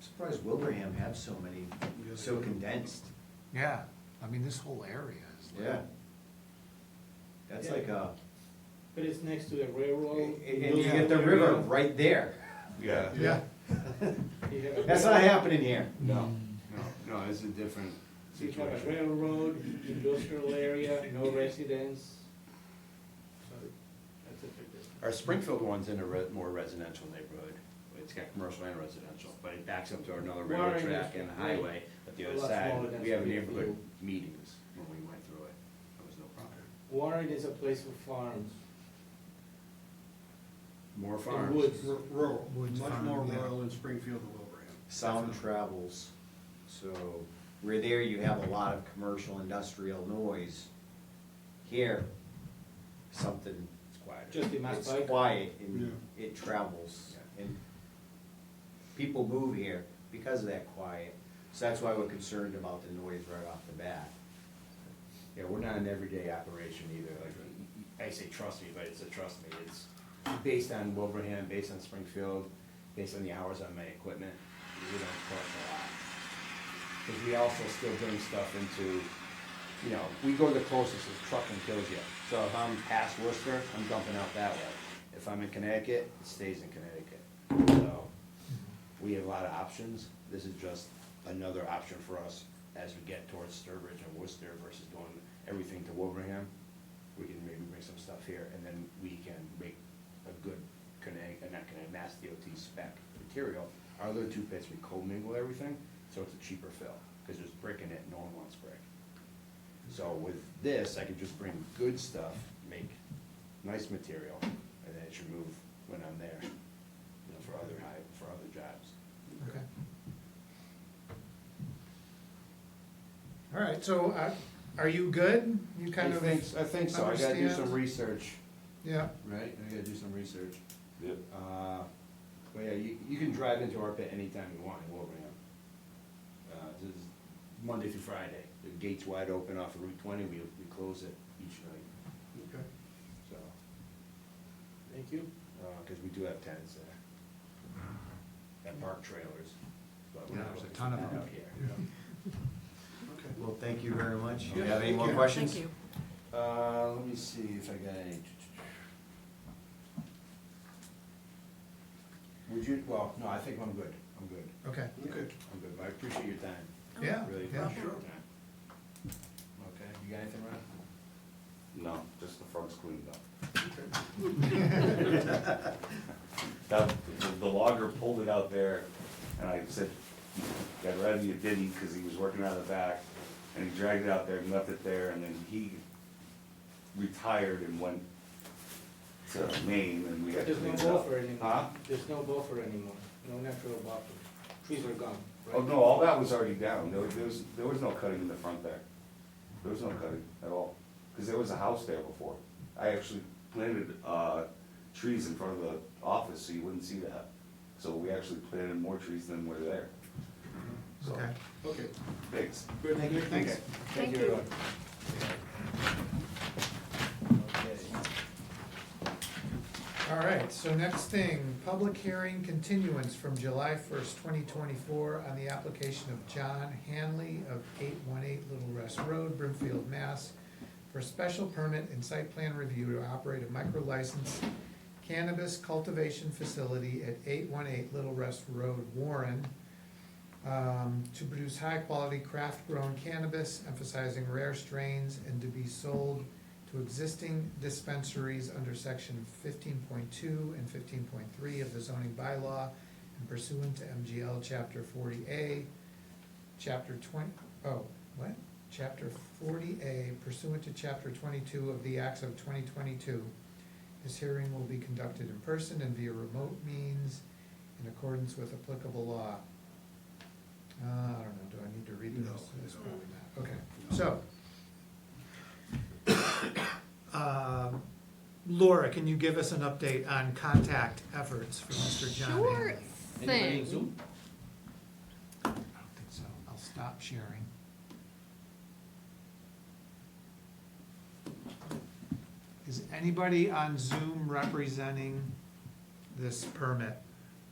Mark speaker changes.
Speaker 1: surprised Wilbraham had so many, so condensed.
Speaker 2: Yeah, I mean, this whole area is. like-
Speaker 1: That's like a,
Speaker 3: But it's next to the railroad.
Speaker 1: and and you get the river
Speaker 4: uh,
Speaker 1: right there.
Speaker 4: Yeah.
Speaker 2: Yeah.
Speaker 3: You have a-
Speaker 1: That's not happening here.
Speaker 4: No, no, no, it's a different
Speaker 3: You have a
Speaker 4: situation.
Speaker 3: railroad, industrial area, no residents. So that's a big difference.
Speaker 4: Our Springfield one's in a re- more residential neighborhood, it's got commercial and residential, but it backs up to another railroad
Speaker 3: Warren
Speaker 4: track
Speaker 3: is
Speaker 4: and a
Speaker 3: great.
Speaker 4: highway, but the
Speaker 3: A
Speaker 4: other
Speaker 3: lot smaller
Speaker 4: side,
Speaker 3: than
Speaker 4: we have
Speaker 3: Springfield.
Speaker 4: neighborhood meetings when we went through it, there was no problem.
Speaker 3: Warren is a place for farms.
Speaker 4: More
Speaker 3: The
Speaker 4: farms,
Speaker 3: woods.
Speaker 5: Ru- Rural,
Speaker 2: Woods
Speaker 5: much
Speaker 2: farm,
Speaker 5: more
Speaker 2: yeah.
Speaker 5: rural in Springfield than Wilbraham.
Speaker 1: Sound travels, so where there you have a lot of commercial industrial noise. Here, something,
Speaker 4: it's quieter.
Speaker 3: Just in my
Speaker 1: it's
Speaker 3: bike.
Speaker 1: quiet and it travels. And people move here because of that quiet. So that's why we're concerned about the noise right off the bat.
Speaker 4: Yeah, we're not an everyday operation either, like, y- y- I say trust me, but it's a trust me, it's based on Wilbraham, based on Springfield, based on the hours on my equipment, we don't trust a lot. Cause we also still bring stuff into, you know, we go the closest, it's trucking kills you. So if I'm past Worcester, I'm dumping out that way. If I'm in Connecticut, it stays in Connecticut. So, we have a lot of options, this is just another option for us as we get towards Sturbridge and Worcester versus doing everything to Wilbraham. We can maybe bring some stuff here, and then we can make a good Connecticut, not Connecticut, Mass DOT spec material. Our other two pits, we co-mingle everything, so it's a cheaper fill, because there's brick in it, no one wants brick. So with this, I could just bring good stuff, make nice material, and then it should move when I'm there, you know, for other high, for other jobs.
Speaker 2: Okay. All right, so uh, are you good? You kind of.
Speaker 4: I think, I think so, I gotta do some
Speaker 2: understand?
Speaker 4: research,
Speaker 2: Yeah,
Speaker 4: right, I gotta do some research.
Speaker 6: Yep.
Speaker 4: Uh, but yeah, you, you can drive into our pit anytime you want in Wilbraham. Uh, this is Monday through Friday, the gate's wide open off of Route twenty, we, we close it each night,
Speaker 2: okay.
Speaker 4: so,
Speaker 3: Thank you.
Speaker 4: uh 'cause cause we do have tenants there. That park trailers, but we're
Speaker 2: Yeah,
Speaker 4: not
Speaker 2: there's a
Speaker 4: looking
Speaker 2: ton
Speaker 4: for
Speaker 2: of
Speaker 4: that
Speaker 2: them.
Speaker 4: out here.
Speaker 5: Okay.
Speaker 1: Well, thank you very much. You
Speaker 5: Yeah,
Speaker 1: have any
Speaker 5: thank
Speaker 1: more
Speaker 5: you.
Speaker 1: questions?
Speaker 7: Thank you.
Speaker 4: Uh, let me see if I got any. Would you, well, no, I think I'm good, I'm good,
Speaker 2: Okay,
Speaker 5: Okay.
Speaker 4: I'm good, but I appreciate your time,
Speaker 2: yeah,
Speaker 4: really
Speaker 2: yeah,
Speaker 4: appreciate your time. Okay, you got anything, Ron?
Speaker 6: No, just the front's cleaned up.
Speaker 5: Okay.
Speaker 6: That, the- the logger pulled it out there, and I said, I read you didn't, because he was working out of the back, and he dragged it out there and left it there, and then he retired and went to Maine, and we had to
Speaker 3: There's
Speaker 6: clean
Speaker 3: no
Speaker 6: it up.
Speaker 3: buffer anymore.
Speaker 6: Huh?
Speaker 3: There's no buffer anymore, no natural buffer. Trees are gone, right?
Speaker 6: Oh, no, all that was already down, there was- there was, there was no cutting in the front there, there was no cutting at all, because there was a house there before. I actually planted, uh, trees in front of the office, so you wouldn't see that, so we actually planted more trees than were there. So,
Speaker 2: okay.
Speaker 5: Okay.
Speaker 6: Thanks.
Speaker 5: Good, good, thanks.
Speaker 4: Okay,
Speaker 7: Thank you.
Speaker 4: everyone.
Speaker 2: All right, so next thing, public hearing continuance from July first, twenty twenty-four on the application of John Hanley of eight one eight Little Rest Road, Brimfield, Mass. For special permit and site plan review to operate a micro license cannabis cultivation facility at eight one eight Little Rest Road, Warren. um, to produce high-quality craft-grown cannabis, emphasizing rare strains, and to be sold to existing dispensaries under section fifteen point two and fifteen point three of the zoning bylaw and pursuant to MGL chapter forty A, chapter 20 oh, what? Chapter forty A pursuant to chapter twenty-two of the Acts of twenty twenty-two. This hearing will be conducted in person and via remote means in accordance with applicable law. Uh, I don't know, do I need to read
Speaker 5: No,
Speaker 2: this? It's
Speaker 5: no.
Speaker 2: probably not, okay, so. Um, Laura, can you give us an update on contact efforts for Mr. John
Speaker 7: Sure
Speaker 2: Hanley?
Speaker 3: Anybody in
Speaker 7: thing.
Speaker 3: Zoom?
Speaker 2: I don't think so. I'll stop sharing. Is anybody on Zoom representing this permit?